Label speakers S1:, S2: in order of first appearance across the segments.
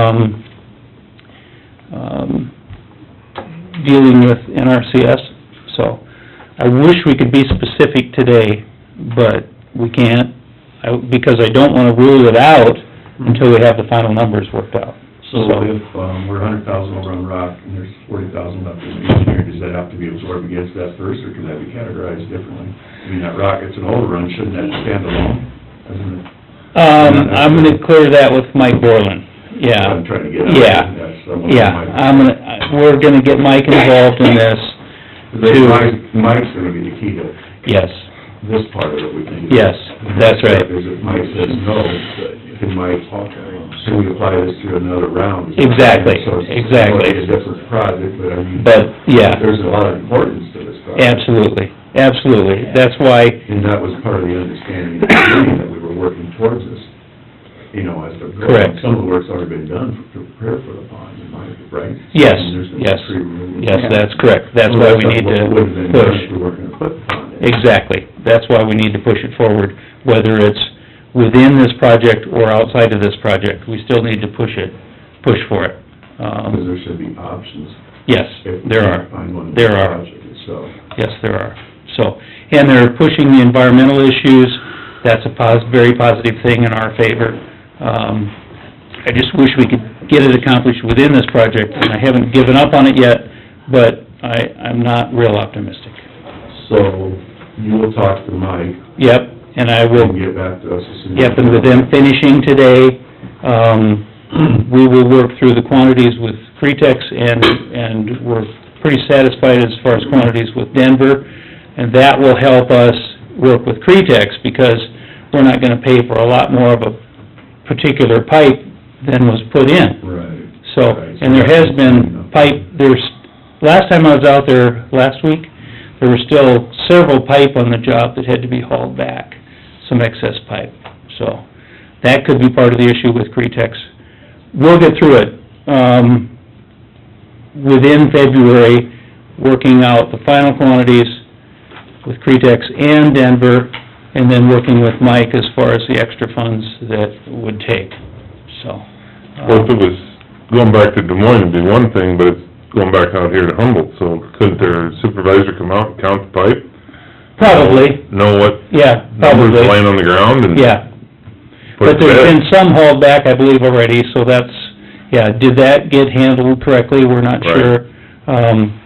S1: um, um, dealing with NRCS, so I wish we could be specific today, but we can't, I- because I don't wanna rule it out until we have the final numbers worked out.
S2: So if, um, we're a hundred thousand over on rock and there's forty thousand left in the engineering, does that have to be absorbed against that first, or can that be categorized differently? I mean, that rock, it's an overrun, shouldn't that stand alone? Isn't it?
S1: Um, I'm gonna clear that with Mike Borland, yeah.
S2: I'm trying to get at.
S1: Yeah.
S2: That's- I'm looking at
S1: Yeah,
S2: Mike.
S1: I'm gonna, I- we're gonna get Mike involved in this,
S2: Because Mike, Mike's gonna be the key to
S1: yes,
S2: this part of it, we think.
S1: Yes, that's right.
S2: Because if Mike says no, can Mike, can we apply this to another round?
S1: Exactly,
S2: So it's-
S1: exactly.
S2: It's a different project, but I mean.
S1: But, yeah.
S2: There's a lot of importance to this project.
S1: absolutely, absolutely. That's why,
S2: And that was part of the understanding at the beginning, that we were working towards this, you know, as the...
S1: Correct.
S2: Some of the work's already been done to prepare for the pond, in my, right?
S1: Yes,
S2: And there's been
S1: yes.
S2: tree removal.
S1: yes, that's correct, that's why we need
S2: Well, that's what would've
S1: to
S2: been done if
S1: push.
S2: we weren't gonna put the pond in.
S1: Exactly, that's why we need to push it forward, whether it's within this project or outside of this project, we still need to push it, push for it.
S2: Because
S1: Um,
S2: there should be options.
S1: yes,
S2: if we
S1: there
S2: can't
S1: are.
S2: Find one in the
S1: There are.
S2: project itself.
S1: Yes, there are. So, and they're pushing the environmental issues. That's a pos, very positive thing in our favor. Um, I just wish we could get it accomplished within this project, and I haven't given up on it yet, but I, I'm not real optimistic.
S2: So you will talk to Mike
S1: Yep, and I
S2: and
S1: will,
S2: get back to us as soon as...
S1: yep, and with them finishing today, um, we will work through the quantities with Cretex, and, and we're pretty satisfied as far as quantities with Denver. And that will help us work with Cretex, because we're not gonna pay for a lot more of a particular pipe than was put in.
S2: Right.
S1: So,
S2: Right,
S1: and there has
S2: that's-
S1: been pipe, there's, last time I was out there last week, there were still several pipe on the job that had to be hauled back, some excess pipe. So, that could be part of the issue with Cretex. We'll get through it, um, within February, working out the final quantities with Cretex and Denver, and then working with Mike as far as the extra funds that would take, so. um,
S3: Well, if it was going back to Des Moines, it'd be one thing, but it's going back out here to Humboldt, so couldn't their supervisor come out and count the pipe?
S1: Probably,
S3: Know what
S1: yeah,
S3: numbers
S1: probably,
S3: laying on the ground and
S1: yeah.
S3: put it
S1: But
S3: to
S1: there's
S3: bed?
S1: been some hauled back, I believe, already, so that's, yeah, did that get handled correctly? We're not
S3: Right.
S1: sure. Um,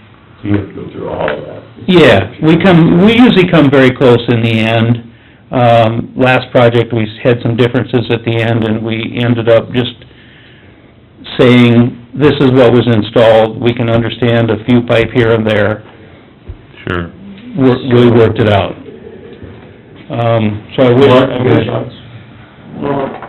S2: You have to go through all of that.
S1: yeah, we come, we usually come very close in the end. Um, last project, we had some differences at the end, and we ended up just saying, this is what was installed, we can understand a few pipe here and there,
S3: Sure.
S1: Wor- we worked it out. Um, so I wish...
S2: Mark,
S1: I
S2: you got
S1: wish-
S2: thoughts?
S4: Well,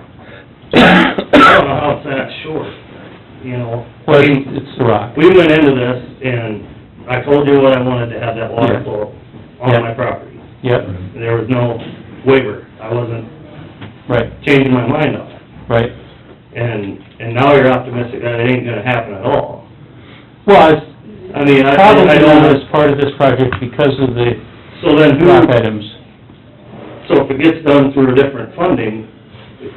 S4: I don't know how it's that short, you know.
S1: Well, it's- it's the rock.
S4: We went into this and I told you what I wanted to have that
S1: Yeah.
S4: water flow
S1: Yeah.
S4: on my property.
S1: Yep,
S4: There was no waiver. I wasn't
S1: right,
S4: changing my mind on it.
S1: right.
S4: And, and now you're optimistic that it ain't gonna happen at all.
S1: Well, it's
S4: I mean, I,
S1: probably
S4: I
S1: not
S4: don't,
S1: as part of this project because of the
S4: so then who,
S1: rock items.
S4: so if it gets done through different funding,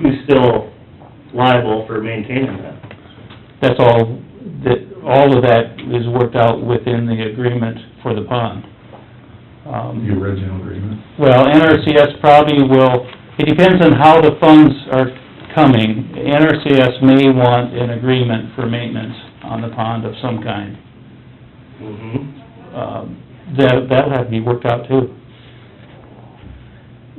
S4: who's still liable for maintaining that?
S1: That's all, that, all of that is worked out within the agreement for the pond.
S2: The
S1: Um,
S2: original agreement?
S1: well, NRCS probably will, it depends on how the funds are coming. NRCS may want an agreement for maintenance on the pond of some kind.
S4: Mm-hmm.
S1: um, that, that'll have to be worked out too.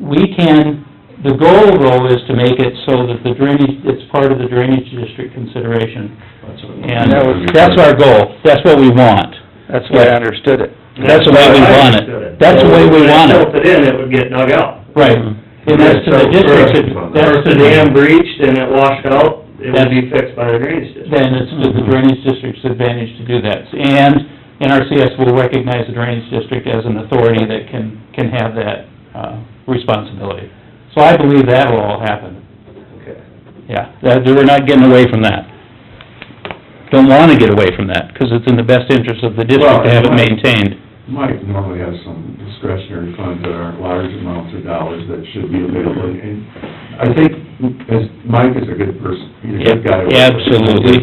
S1: We can, the goal though is to make it so that the drainage, it's part of the drainage district consideration.
S2: That's what I'm-
S1: And
S5: That was-
S1: that's our goal, that's what we want.
S5: That's the way I understood it.
S1: That's the way we want it. That's the way we want
S4: If
S1: it,
S4: it tilted in, it would get dug out.
S1: right.
S5: Mm-hmm.
S1: And that's to the district, that's
S4: If
S1: to
S4: the
S1: the,
S4: dam breached and it washed out, it would be fixed by the drainage district.
S1: then it's to the drainage district's advantage to do that. And NRCS will recognize the drainage district as an authority that can, can have that, uh, responsibility. So I believe that will all happen.
S4: Okay.
S1: Yeah, that, we're not getting away from that. Don't wanna get away from that, 'cause it's in the best interest of the district to have it maintained.
S2: Mike normally has some discretionary funds that aren't large amounts of dollars that should be available, and I think, as, Mike is a good person, he's a good guy.
S1: Absolutely.